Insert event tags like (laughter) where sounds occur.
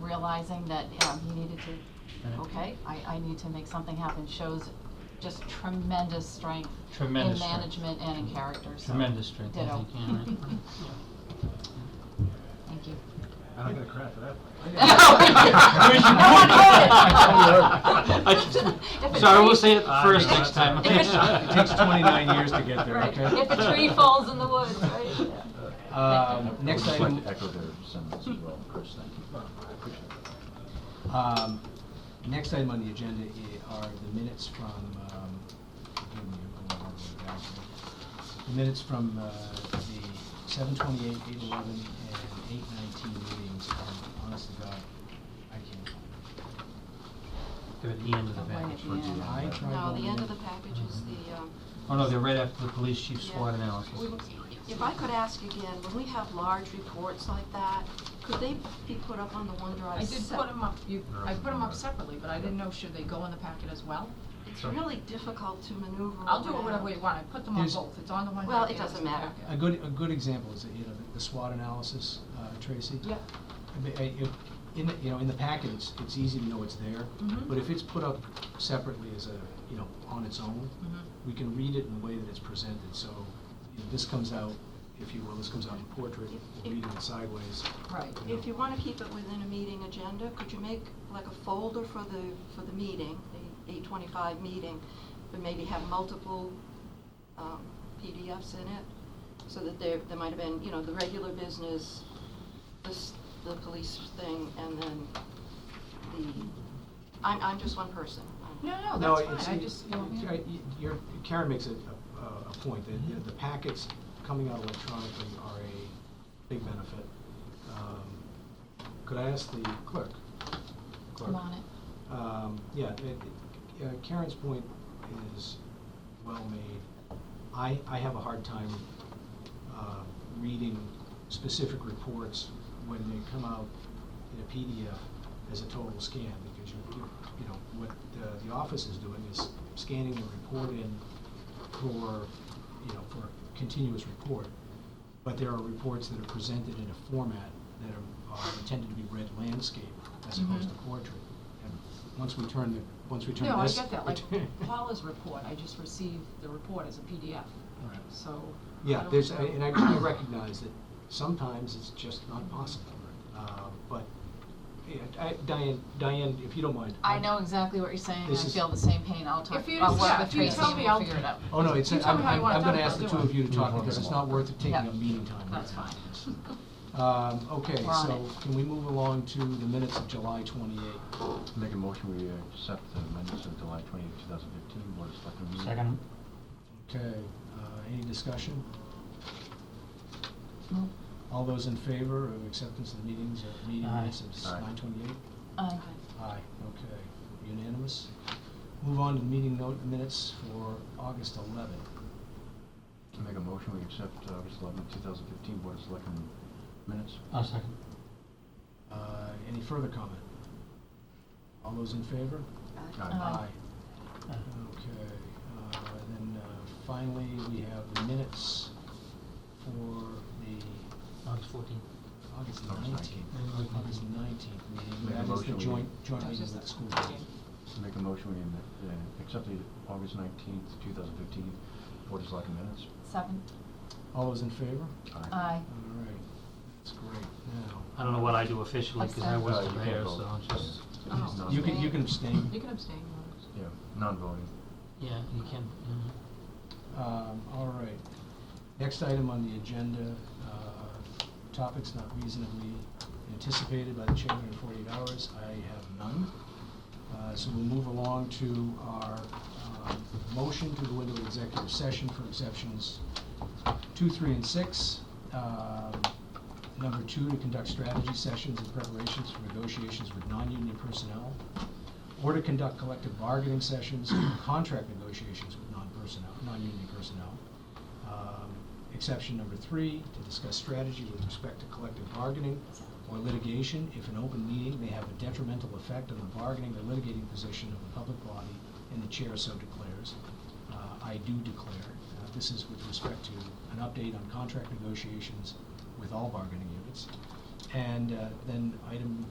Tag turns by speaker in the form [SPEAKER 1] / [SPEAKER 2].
[SPEAKER 1] realizing that, um, he needed to, okay, I, I need to make something happen, shows just tremendous strength
[SPEAKER 2] Tremendous
[SPEAKER 1] in
[SPEAKER 2] strength.
[SPEAKER 1] management and in character, so.
[SPEAKER 2] Tremendous strength, I
[SPEAKER 1] ditto.
[SPEAKER 2] think, yeah, right.
[SPEAKER 1] (laughs) Thank you.
[SPEAKER 3] I don't get a credit for that.
[SPEAKER 2] (laughs) I
[SPEAKER 1] If
[SPEAKER 2] just-
[SPEAKER 1] a
[SPEAKER 2] So I will
[SPEAKER 1] tree-
[SPEAKER 2] say it
[SPEAKER 3] Ah,
[SPEAKER 2] first
[SPEAKER 3] no,
[SPEAKER 2] next
[SPEAKER 3] that's
[SPEAKER 2] time.
[SPEAKER 3] all right. It takes 29 years to get there,
[SPEAKER 1] Right.
[SPEAKER 3] okay?
[SPEAKER 1] If a
[SPEAKER 2] (laughs)
[SPEAKER 1] tree falls in the woods, right, yeah.
[SPEAKER 4] Um, Next
[SPEAKER 5] I would
[SPEAKER 4] item,
[SPEAKER 5] just like to echo their sentiments as well, Chris, thank you.
[SPEAKER 3] Well, I appreciate that.
[SPEAKER 4] um, next item on the agenda i- are the minutes from, um, give me a moment, I'll go back here. the minutes from uh, the seven twenty-eight, eight eleven, and eight nineteen meetings, and honest to God, I can't.
[SPEAKER 2] They're at the end of the
[SPEAKER 1] Right at
[SPEAKER 2] package.
[SPEAKER 1] the end.
[SPEAKER 4] I tried
[SPEAKER 6] No,
[SPEAKER 4] going
[SPEAKER 6] the end
[SPEAKER 4] in-
[SPEAKER 6] of the package is the, um.
[SPEAKER 2] Oh, no, they're right after the police chief
[SPEAKER 6] yeah.
[SPEAKER 2] SWOT analysis.
[SPEAKER 6] We- If I could ask again, when we have large reports like that, could they be put up on the OneDrive?
[SPEAKER 7] I did
[SPEAKER 6] sep-
[SPEAKER 7] put them up, you, I put them up separately, but I didn't know, should they go in the packet as well?
[SPEAKER 6] It's really difficult to maneuver
[SPEAKER 7] I'll do it
[SPEAKER 6] around.
[SPEAKER 7] whatever way you want, I put them on
[SPEAKER 4] There's-
[SPEAKER 7] both, it's on the one.
[SPEAKER 6] Well,
[SPEAKER 7] packet,
[SPEAKER 6] it
[SPEAKER 7] it's
[SPEAKER 6] doesn't
[SPEAKER 7] on the
[SPEAKER 6] matter.
[SPEAKER 7] packet.
[SPEAKER 4] A good, a good example is, you know, the- the SWOT analysis, uh, Tracy.
[SPEAKER 7] Yeah,
[SPEAKER 4] I mean, I- if- In, the- you know, in the packet, it's, it's easy to know it's there,
[SPEAKER 7] Mhm.
[SPEAKER 6] Mm-hmm.
[SPEAKER 4] but if it's put up separately as a, you know, on its own,
[SPEAKER 7] Mhm.
[SPEAKER 4] we can read it in the way that it's presented, so you know, this comes out, if you will, this comes out in portrait, we'll read it sideways.
[SPEAKER 7] right.
[SPEAKER 4] you know.
[SPEAKER 6] If you wanna keep it within a meeting agenda, could you make like a folder for the, for the meeting, the eight twenty-five meeting, but maybe have multiple, um, PDFs in it? So that there, there might have been, you know, the regular business, this, the police thing, and then the, I'm, I'm just one person. I'm-
[SPEAKER 7] No, no, that's
[SPEAKER 4] it's-
[SPEAKER 7] fine, I
[SPEAKER 4] it-
[SPEAKER 7] just, you know,
[SPEAKER 4] it's- I- y- your- Karen makes a, a, a point that you know, the packets coming out electronically are a big benefit. Um, Could I ask the clerk? Clerk.
[SPEAKER 1] I'm on it.
[SPEAKER 4] Um, yeah, it- it- uh, Karen's point is well made. I, I have a hard time, uh, reading specific reports when they come out in a PDF as a total scan, because you, you, you know, what the, the office is doing is scanning the report in for, you know, for continuous report. But there are reports that are presented in a format that are- are intended to be read landscape as
[SPEAKER 7] Mm-hmm.
[SPEAKER 4] opposed to portrait. And once we turn the, once we turn
[SPEAKER 7] no, I
[SPEAKER 4] this. (laughs)
[SPEAKER 7] get that,
[SPEAKER 4] we
[SPEAKER 7] like
[SPEAKER 4] turn-
[SPEAKER 7] Paula's report, I just received the report as a PDF,
[SPEAKER 4] All right.
[SPEAKER 7] so. I
[SPEAKER 4] Yeah,
[SPEAKER 7] don't
[SPEAKER 4] there's,
[SPEAKER 7] know.
[SPEAKER 4] and I I recognize that sometimes it's just not possible. Uh, But, yeah, I- Diane, Diane, if you don't mind.
[SPEAKER 1] I know exactly what you're saying, I
[SPEAKER 4] This is-
[SPEAKER 1] feel the same pain, I'll talk,
[SPEAKER 7] If you
[SPEAKER 1] I'll
[SPEAKER 7] just-
[SPEAKER 1] work
[SPEAKER 7] yeah,
[SPEAKER 1] with
[SPEAKER 7] if you
[SPEAKER 1] Tracy
[SPEAKER 7] tell
[SPEAKER 1] and
[SPEAKER 7] me,
[SPEAKER 1] we'll
[SPEAKER 7] I'll-
[SPEAKER 1] figure it out.
[SPEAKER 4] Oh, no, it's,
[SPEAKER 7] You
[SPEAKER 4] I'm,
[SPEAKER 7] tell me how you
[SPEAKER 4] I'm
[SPEAKER 7] wanna
[SPEAKER 4] I'm gonna
[SPEAKER 7] talk,
[SPEAKER 4] ask
[SPEAKER 7] I'll
[SPEAKER 4] the
[SPEAKER 7] do
[SPEAKER 4] two
[SPEAKER 7] it.
[SPEAKER 4] of you to
[SPEAKER 5] You
[SPEAKER 4] talk
[SPEAKER 5] want
[SPEAKER 4] because
[SPEAKER 5] it
[SPEAKER 4] it's
[SPEAKER 5] all.
[SPEAKER 4] not worth it taking
[SPEAKER 1] Yeah.
[SPEAKER 4] up meeting time.
[SPEAKER 1] That's fine.
[SPEAKER 4] Um, okay,
[SPEAKER 1] We're on
[SPEAKER 4] so
[SPEAKER 1] it.
[SPEAKER 4] can we move along to the minutes of July twenty-eight?
[SPEAKER 5] Make a motion, we accept the minutes of July twenty eighth, 2015, Board of Selectmen meeting.
[SPEAKER 2] Second.
[SPEAKER 4] Okay, uh, any discussion?
[SPEAKER 1] No.
[SPEAKER 4] All those in favor of acceptance of the meetings, of meeting
[SPEAKER 2] Aye.
[SPEAKER 4] minutes of
[SPEAKER 5] Aye.
[SPEAKER 4] nine twenty-eight?
[SPEAKER 1] Aye.
[SPEAKER 4] Aye, okay, unanimous. Move on to meeting note minutes for August eleventh.
[SPEAKER 5] Make a motion, we accept August eleventh, 2015, Board of Selectmen minutes.
[SPEAKER 2] I'll second.
[SPEAKER 4] Uh, any further comment? All those in favor?
[SPEAKER 5] Aye.
[SPEAKER 1] Aye.
[SPEAKER 2] Aye.
[SPEAKER 4] Okay, uh, and then, uh, finally, we have the minutes for the
[SPEAKER 2] August fourteenth.
[SPEAKER 4] August
[SPEAKER 5] August
[SPEAKER 4] nineteenth,
[SPEAKER 2] 19th.
[SPEAKER 4] August nineteenth
[SPEAKER 5] Make
[SPEAKER 4] meeting,
[SPEAKER 5] a
[SPEAKER 4] that is the
[SPEAKER 5] motion we-
[SPEAKER 4] joint, joint
[SPEAKER 7] That was just
[SPEAKER 4] meeting of the
[SPEAKER 7] the
[SPEAKER 4] school
[SPEAKER 7] first
[SPEAKER 4] board.
[SPEAKER 5] Make a motion, we uh, accept the August nineteenth, 2015, Board of Selectmen minutes.
[SPEAKER 1] Seven,
[SPEAKER 4] All those in favor?
[SPEAKER 1] aye.
[SPEAKER 4] All right, that's great, now.
[SPEAKER 2] I don't know what I do officially, because I
[SPEAKER 1] Abstain.
[SPEAKER 2] wasn't
[SPEAKER 5] Uh, you can't
[SPEAKER 2] there,
[SPEAKER 5] vote.
[SPEAKER 2] so I'll just,
[SPEAKER 5] Yeah.
[SPEAKER 7] Oh.
[SPEAKER 5] Not-
[SPEAKER 4] You can, you can abstain.
[SPEAKER 7] You can abstain, Lois.
[SPEAKER 5] Yeah, non-voting.
[SPEAKER 2] yeah, you uh-huh. can, yeah.
[SPEAKER 4] Um, all right. Next item on the agenda, uh, topics not reasonably anticipated by the chairman in forty-eight hours. I have none. Uh, so we'll move along to our, um, motion to go into executive session for exceptions two, three, and six. Um, Number two, to conduct strategy sessions and preparations for negotiations with non-union personnel or to conduct collective bargaining sessions, (clears throat) contract negotiations with non-personnel, non-union personnel. Um, Exception number three, to discuss strategy with respect to collective bargaining or litigation if an open meeting may have a detrimental effect on the bargaining or litigating position of the public body and the chair so declares. Uh, I do declare, uh, this is with respect to an update on contract negotiations with all bargaining units. And uh, then item